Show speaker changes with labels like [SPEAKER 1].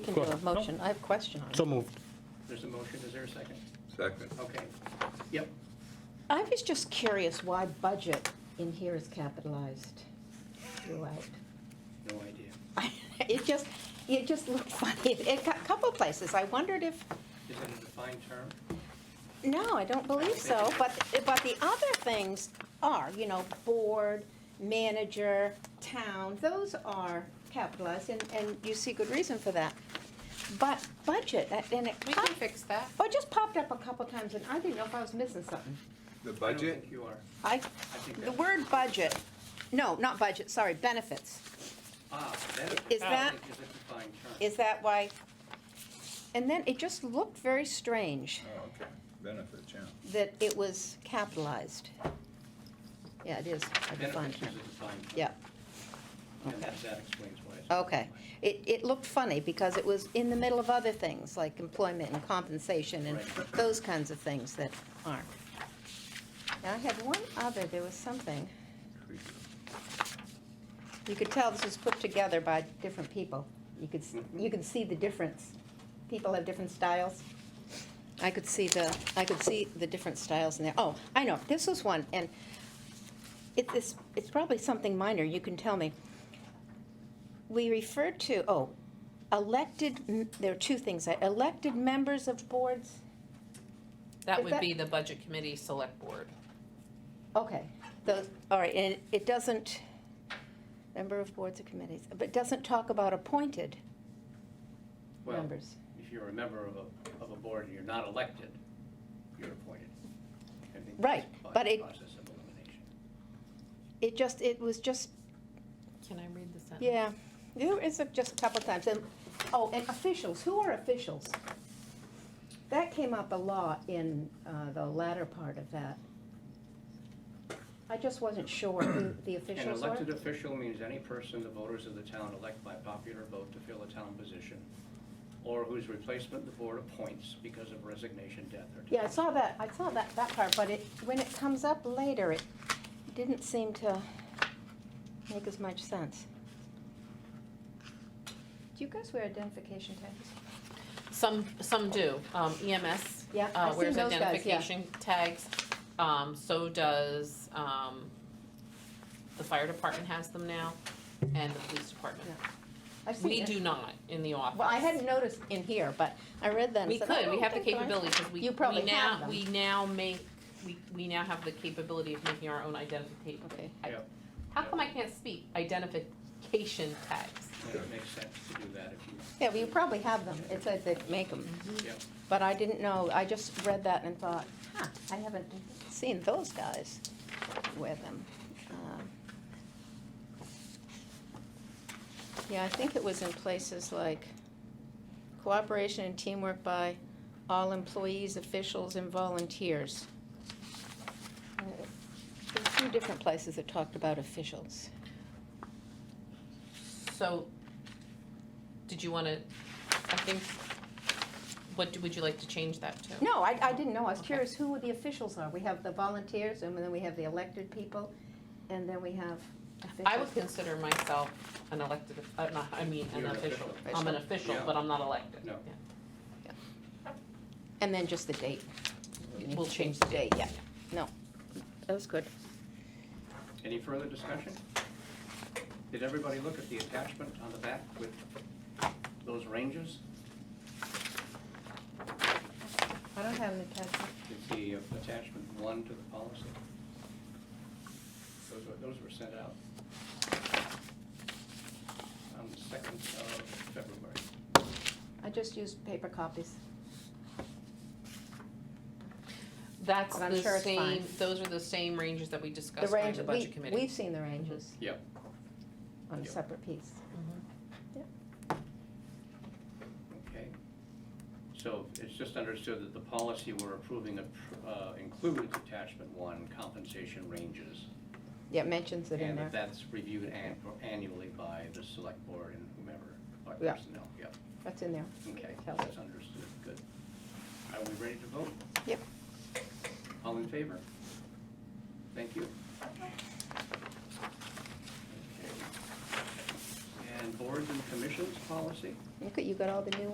[SPEAKER 1] can do a motion. I have a question.
[SPEAKER 2] So moved.
[SPEAKER 3] There's a motion, is there a second?
[SPEAKER 4] Second.
[SPEAKER 3] Okay, yep.
[SPEAKER 1] I was just curious why budget in here is capitalized throughout.
[SPEAKER 3] No idea.
[SPEAKER 1] It just, it just looked funny. In a cou- couple places, I wondered if,
[SPEAKER 3] Is it a defined term?
[SPEAKER 1] no, I don't believe so, but, but the other things are, you know, board, manager, town, those are capitalized, and, and you see good reason for that. But budget, that- and it,
[SPEAKER 5] We can
[SPEAKER 1] pop-
[SPEAKER 5] fix that.
[SPEAKER 1] oh, it just popped up a couple times, and I didn't know if I was missing something.
[SPEAKER 4] The
[SPEAKER 3] I don't
[SPEAKER 4] budget?
[SPEAKER 3] think you are.
[SPEAKER 1] I,
[SPEAKER 3] think
[SPEAKER 1] the
[SPEAKER 3] that's-
[SPEAKER 1] word budget, no, not budget, sorry, benefits.
[SPEAKER 3] Ah, benefits.
[SPEAKER 1] Is
[SPEAKER 3] I
[SPEAKER 1] that-
[SPEAKER 3] think Is a defined term.
[SPEAKER 1] Is that why? And then it just looked very strange
[SPEAKER 4] Oh, okay. Benefits, yeah.
[SPEAKER 1] that it was capitalized. Yeah, it is a defined
[SPEAKER 3] Benefits is
[SPEAKER 1] term.
[SPEAKER 3] a defined term.
[SPEAKER 1] Yeah,
[SPEAKER 3] And that that explains why it's.
[SPEAKER 1] okay. It, it looked funny because it was in the middle of other things like employment and compensation and
[SPEAKER 3] Right.
[SPEAKER 1] those kinds of things that aren't. Now, I had one other, there was something. You could tell this was put together by different people. You could, s- you could see the difference. People have different styles. I could see the, I could see the different styles in there. Oh, I know, this was one, and it, this, it's probably something minor, you can tell me. We refer to, oh, elected, m- there are two things, uh, elected members of boards,
[SPEAKER 5] That
[SPEAKER 1] Is
[SPEAKER 5] would
[SPEAKER 1] that-
[SPEAKER 5] be the budget committee select board.
[SPEAKER 1] okay. Those, all right, and it doesn't, member of boards or committees, but it doesn't talk about appointed
[SPEAKER 3] Well,
[SPEAKER 1] members.
[SPEAKER 3] if you're a member of a, of a board and you're not elected, you're appointed. I think that's
[SPEAKER 1] Right,
[SPEAKER 3] by
[SPEAKER 1] but it-
[SPEAKER 3] Process of elimination.
[SPEAKER 1] It just, it was just,
[SPEAKER 5] Can I read the sentence?
[SPEAKER 1] yeah, there is a- just a couple times, and, oh, and officials, who are officials? That came up a lot in uh, the latter part of that. I just wasn't sure who the
[SPEAKER 3] An
[SPEAKER 1] officials were.
[SPEAKER 3] elected official means any person the voters of the town elect by popular vote to fill a town position, or whose replacement the board appoints because of resignation, death, or
[SPEAKER 1] Yeah, I saw that, I saw that, that part, but it, when it comes up later, it didn't seem to make as much sense. Do you guys wear identification tags?
[SPEAKER 5] Some, some do. Um, EMS.
[SPEAKER 1] Yeah,
[SPEAKER 5] uh,
[SPEAKER 1] I've seen
[SPEAKER 5] Wears
[SPEAKER 1] those guys, yeah.
[SPEAKER 5] identification tags. Um, so does, um, the fire department has them now and the police department.
[SPEAKER 1] I've seen
[SPEAKER 5] We
[SPEAKER 1] it.
[SPEAKER 5] do not in the office.
[SPEAKER 1] Well, I hadn't noticed in here, but I read that. and
[SPEAKER 5] We
[SPEAKER 1] said,
[SPEAKER 5] could,
[SPEAKER 1] "Oh,
[SPEAKER 5] we have the
[SPEAKER 1] okay, fine."
[SPEAKER 5] capability, because we,
[SPEAKER 1] You
[SPEAKER 5] we
[SPEAKER 1] probably have
[SPEAKER 5] now,
[SPEAKER 1] them.
[SPEAKER 5] we now make, we, we now have the capability of making our own identity.
[SPEAKER 1] Okay.
[SPEAKER 5] I-
[SPEAKER 3] Yep.
[SPEAKER 5] How come I can't speak? Identification tags.
[SPEAKER 3] Yeah, It makes sense to do that if you,
[SPEAKER 1] Yeah, well, you probably have them. It says they make them.
[SPEAKER 3] yeah.
[SPEAKER 1] But I didn't know, I just read that and thought, huh, I haven't seen those guys wear them. Um, Yeah, I think it was in places like cooperation and teamwork by all employees, officials, and volunteers. Uh, There's a few different places that talked about officials.
[SPEAKER 5] So, did you wanna, I think, what, do- would you like to change that to?
[SPEAKER 1] No, I, I didn't know. I was
[SPEAKER 5] Okay.
[SPEAKER 1] curious who the officials are. We have the volunteers, and then we have the elected people, and then we have officials.
[SPEAKER 5] I would consider myself an elected, uh, not, I mean, an
[SPEAKER 3] You're an
[SPEAKER 5] official.
[SPEAKER 3] official.
[SPEAKER 5] I'm an official,
[SPEAKER 3] Yeah.
[SPEAKER 5] but I'm not elected.
[SPEAKER 3] No.
[SPEAKER 1] And then just the date.
[SPEAKER 5] Yeah.
[SPEAKER 1] need
[SPEAKER 5] We'll
[SPEAKER 1] to
[SPEAKER 5] change the date,
[SPEAKER 1] yeah.
[SPEAKER 5] yeah.
[SPEAKER 1] No, that was good.
[SPEAKER 3] Any further discussion? Did everybody look at the attachment on the back with those ranges?
[SPEAKER 1] I don't have any attachment.
[SPEAKER 3] It's the attachment one to the policy. Those were, those were sent out on the second of February.
[SPEAKER 1] I just used paper copies.
[SPEAKER 5] That's
[SPEAKER 1] But I'm
[SPEAKER 5] the
[SPEAKER 1] sure it's
[SPEAKER 5] same,
[SPEAKER 1] fine.
[SPEAKER 5] those are the same ranges that we
[SPEAKER 1] The
[SPEAKER 5] discussed during
[SPEAKER 1] range,
[SPEAKER 5] the
[SPEAKER 1] we,
[SPEAKER 5] budget committee.
[SPEAKER 1] we've seen the ranges
[SPEAKER 3] Yep.
[SPEAKER 1] on a
[SPEAKER 3] Yeah.
[SPEAKER 1] separate piece.
[SPEAKER 5] Mm-hmm.
[SPEAKER 3] Okay. So it's just understood that the policy we're approving appr- uh, includes attachment one, compensation ranges.
[SPEAKER 1] Yeah, it mentions it in
[SPEAKER 3] And that
[SPEAKER 1] there.
[SPEAKER 3] that's reviewed an- annually by the select board and whomever, by
[SPEAKER 1] Yeah.
[SPEAKER 3] personnel, yep.
[SPEAKER 1] That's in there.
[SPEAKER 3] Okay,
[SPEAKER 1] Kelly.
[SPEAKER 3] that's understood, good. Are we ready to vote?
[SPEAKER 1] Yep.
[SPEAKER 3] All in favor? Thank you. Okay.
[SPEAKER 6] and boards and commissions policy?
[SPEAKER 3] Look at, you got all the new